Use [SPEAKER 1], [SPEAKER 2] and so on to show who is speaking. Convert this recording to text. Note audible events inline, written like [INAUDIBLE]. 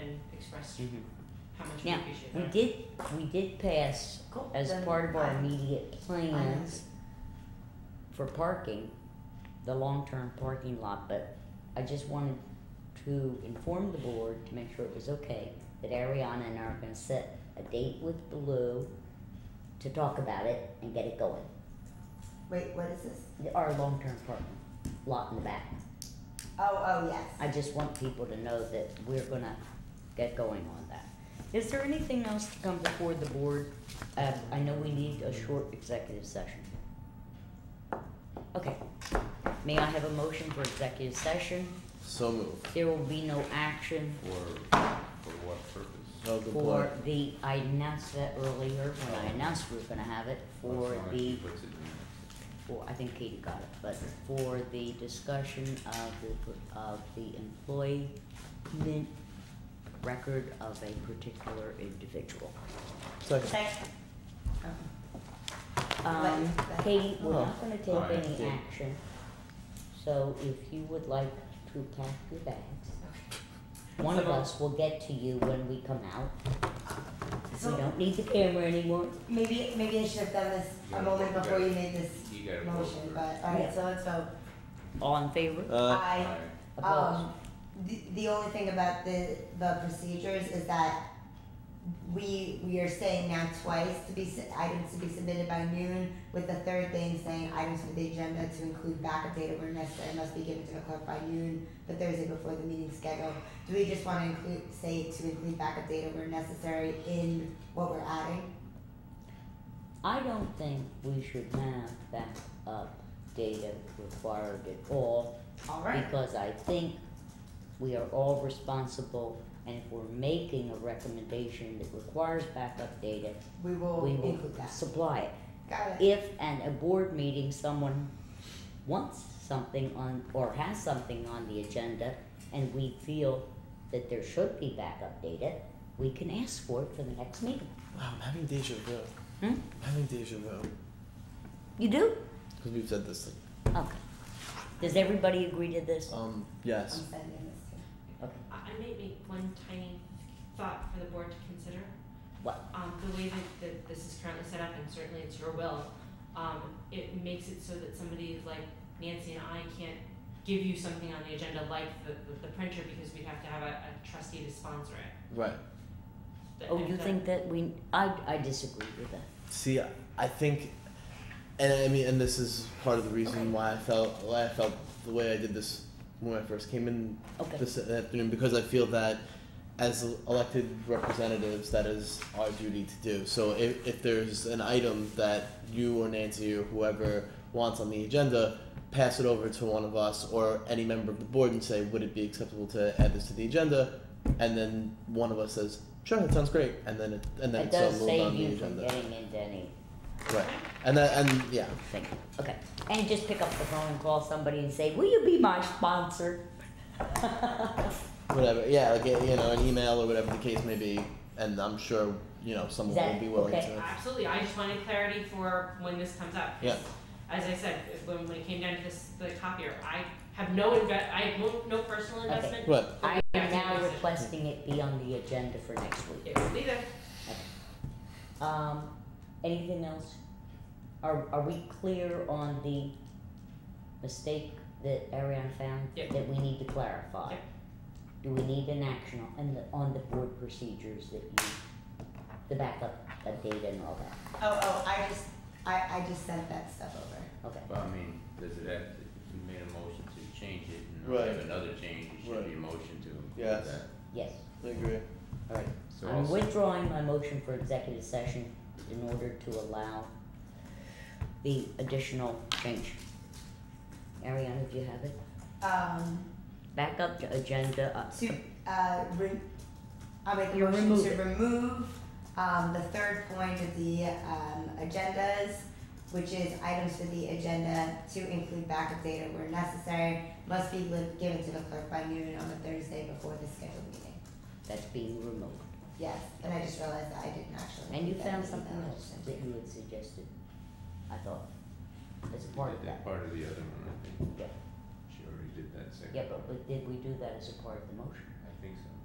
[SPEAKER 1] and express
[SPEAKER 2] Mm-hmm.
[SPEAKER 3] Mhm.
[SPEAKER 1] how much we
[SPEAKER 2] Now,
[SPEAKER 1] appreciate
[SPEAKER 2] We
[SPEAKER 1] that.
[SPEAKER 2] did, we did pass
[SPEAKER 1] Cool.
[SPEAKER 2] as
[SPEAKER 1] Then
[SPEAKER 2] part of our
[SPEAKER 1] I-
[SPEAKER 2] immediate plans for parking, the long-term parking lot, but I just wanted to inform the board to make sure it was okay, that Ariana and I are gonna set a date with Blue to talk about it and get it going,
[SPEAKER 4] Wait, what is this?
[SPEAKER 2] our long-term parking lot in the back.
[SPEAKER 4] Oh, oh, yes.
[SPEAKER 2] I just want people to know that we're gonna get going on that. Is there anything else to come before the board? Uh, I know we need a short executive session. Okay, may I have a motion for executive session?
[SPEAKER 3] So moved.
[SPEAKER 2] There will be no action
[SPEAKER 5] For, for what purpose?
[SPEAKER 3] Of the
[SPEAKER 2] for
[SPEAKER 3] blood.
[SPEAKER 2] the, I announced that earlier when I announced we were gonna have it for
[SPEAKER 5] Electronic
[SPEAKER 2] the,
[SPEAKER 5] puts it in.
[SPEAKER 2] for, I think Katie got it, but for the discussion of the, of the employment record of a particular individual.
[SPEAKER 3] Second.
[SPEAKER 4] Thank-
[SPEAKER 2] Um,
[SPEAKER 4] Right.
[SPEAKER 2] Katie, we're
[SPEAKER 3] Oh.
[SPEAKER 2] not gonna
[SPEAKER 5] Alright.
[SPEAKER 2] take any
[SPEAKER 3] Yeah.
[SPEAKER 2] action, so if you would like to pack your bags, one of
[SPEAKER 1] So-
[SPEAKER 2] us will get to you when we come out. We
[SPEAKER 4] So-
[SPEAKER 2] don't need the camera anymore.
[SPEAKER 4] Maybe, maybe I should have done this a moment before you made this
[SPEAKER 5] You gotta vote
[SPEAKER 4] motion,
[SPEAKER 5] first.
[SPEAKER 4] but, alright, so let's vote.
[SPEAKER 2] All in favor?
[SPEAKER 3] Uh,
[SPEAKER 4] I,
[SPEAKER 5] Alright.
[SPEAKER 2] Opposed?
[SPEAKER 4] um, the, the only thing about the, the procedures is that we, we are saying now twice to be, su- items to be submitted by noon, with the third thing saying items for the agenda to include backup data where necessary must be given to the clerk by noon, the Thursday before the meeting schedule. Do we just wanna include, say to include backup data where necessary in what we're adding?
[SPEAKER 2] I don't think we should have backup data required at all,
[SPEAKER 4] Alright.
[SPEAKER 2] because I think we are all responsible, and if we're making a recommendation that requires backup data,
[SPEAKER 4] We will
[SPEAKER 2] Oh, we will
[SPEAKER 4] include that.
[SPEAKER 2] supply it.
[SPEAKER 4] Got it.
[SPEAKER 2] if at a board meeting someone wants something on or has something on the agenda and we feel that there should be backup data, we can ask for it for the next meeting.
[SPEAKER 3] wow, I'm having deja vu.
[SPEAKER 2] Hmm?
[SPEAKER 3] I'm having deja vu.
[SPEAKER 2] You do?
[SPEAKER 3] Because we've said this.
[SPEAKER 2] Okay. Does everybody agree to this?
[SPEAKER 4] I'm
[SPEAKER 3] Um, yes.
[SPEAKER 4] sending this to.
[SPEAKER 2] Okay.
[SPEAKER 1] I, I may make one tiny thought for the board to consider.
[SPEAKER 2] What?
[SPEAKER 1] Um, the way that, that this is currently set up, and certainly it's your will, um, it makes it so that somebody like Nancy and I can't give you something on the agenda like the, the, the printer because we'd have to have a, a trustee to sponsor it.
[SPEAKER 3] Right.
[SPEAKER 1] Th-
[SPEAKER 2] Oh,
[SPEAKER 1] if
[SPEAKER 2] you
[SPEAKER 1] that-
[SPEAKER 2] think that we? I I disagree with that.
[SPEAKER 3] See, I think, and I mean, and this is part of the reason
[SPEAKER 2] Okay.
[SPEAKER 3] why I felt why I felt the way I did this when I first came in
[SPEAKER 2] Okay.
[SPEAKER 3] this afternoon because I feel that as elected representatives, that is our duty to do. So if, if there's an item that you or Nancy or whoever wants on the agenda, pass it over to one of us or any member of the board and say, would it be acceptable to add this to the agenda? And then one of us says, sure, that sounds great. And then it, and then
[SPEAKER 2] It
[SPEAKER 3] it's all
[SPEAKER 2] does
[SPEAKER 3] moved on
[SPEAKER 2] save
[SPEAKER 3] the
[SPEAKER 2] you from
[SPEAKER 3] agenda.
[SPEAKER 2] getting into anything.
[SPEAKER 3] Right. And that, and yeah,
[SPEAKER 2] Okay. And just pick up the phone and call somebody and say, "Will you be my sponsor?" [LAUGHS]
[SPEAKER 3] whatever. Yeah, like, you know, an email or whatever the case may be. And I'm sure, you know, someone will
[SPEAKER 2] That-
[SPEAKER 3] be willing
[SPEAKER 2] okay.
[SPEAKER 3] to.
[SPEAKER 1] Absolutely, I just wanted clarity for when this comes up. 'cause
[SPEAKER 3] Yeah.
[SPEAKER 1] As I said, when, when it came down to this, the copier, I have no inve- I have no, no personal
[SPEAKER 2] Okay.
[SPEAKER 1] investment.
[SPEAKER 3] Right.
[SPEAKER 2] I am now
[SPEAKER 1] Yeah.
[SPEAKER 2] requesting it be on the agenda for next week.
[SPEAKER 1] It will be there.
[SPEAKER 2] Um, anything else? Are, are we clear on the mistake that Ariana found?
[SPEAKER 1] Yeah.
[SPEAKER 2] That we need to clarify?
[SPEAKER 1] Yeah.
[SPEAKER 2] Do we need an action on the, on the board procedures that you, the backup, the data and all that?
[SPEAKER 4] Oh, oh, I just, I, I just sent that stuff over.
[SPEAKER 2] Okay,
[SPEAKER 5] But I mean, does it have to, if you made a motion to change it and
[SPEAKER 3] Right.
[SPEAKER 5] have another change, it
[SPEAKER 3] Right.
[SPEAKER 5] should be a motion to include
[SPEAKER 3] Yes.
[SPEAKER 5] that.
[SPEAKER 2] yes.
[SPEAKER 3] I agree.
[SPEAKER 2] Alright,
[SPEAKER 5] So I'll
[SPEAKER 2] I'm
[SPEAKER 5] se-
[SPEAKER 2] withdrawing my motion for executive session in order to allow the additional change. Ariana, do you have it?
[SPEAKER 4] Um,
[SPEAKER 2] Back up to agenda, uh,
[SPEAKER 4] to, uh, re- I'll make a
[SPEAKER 2] You
[SPEAKER 4] motion
[SPEAKER 2] remove
[SPEAKER 4] to
[SPEAKER 2] it.
[SPEAKER 4] remove, um, the third point of the, um, agendas, which is items for the agenda to include backup data where necessary, must be li- given to the clerk by noon on the Thursday before the scheduled meeting.
[SPEAKER 2] that's being removed.
[SPEAKER 4] Yes, and I just realized that I didn't actually.
[SPEAKER 2] And you
[SPEAKER 4] include
[SPEAKER 2] found
[SPEAKER 4] that in the
[SPEAKER 2] something
[SPEAKER 4] email I
[SPEAKER 2] else
[SPEAKER 4] sent
[SPEAKER 2] that
[SPEAKER 4] you.
[SPEAKER 2] you had suggested, I thought, as a part of
[SPEAKER 5] did that
[SPEAKER 2] that.
[SPEAKER 5] part of the other one, I think.
[SPEAKER 2] Yeah.
[SPEAKER 5] She already did that second.
[SPEAKER 2] Yeah, but we- did we do that as a part of the motion?
[SPEAKER 5] I think so.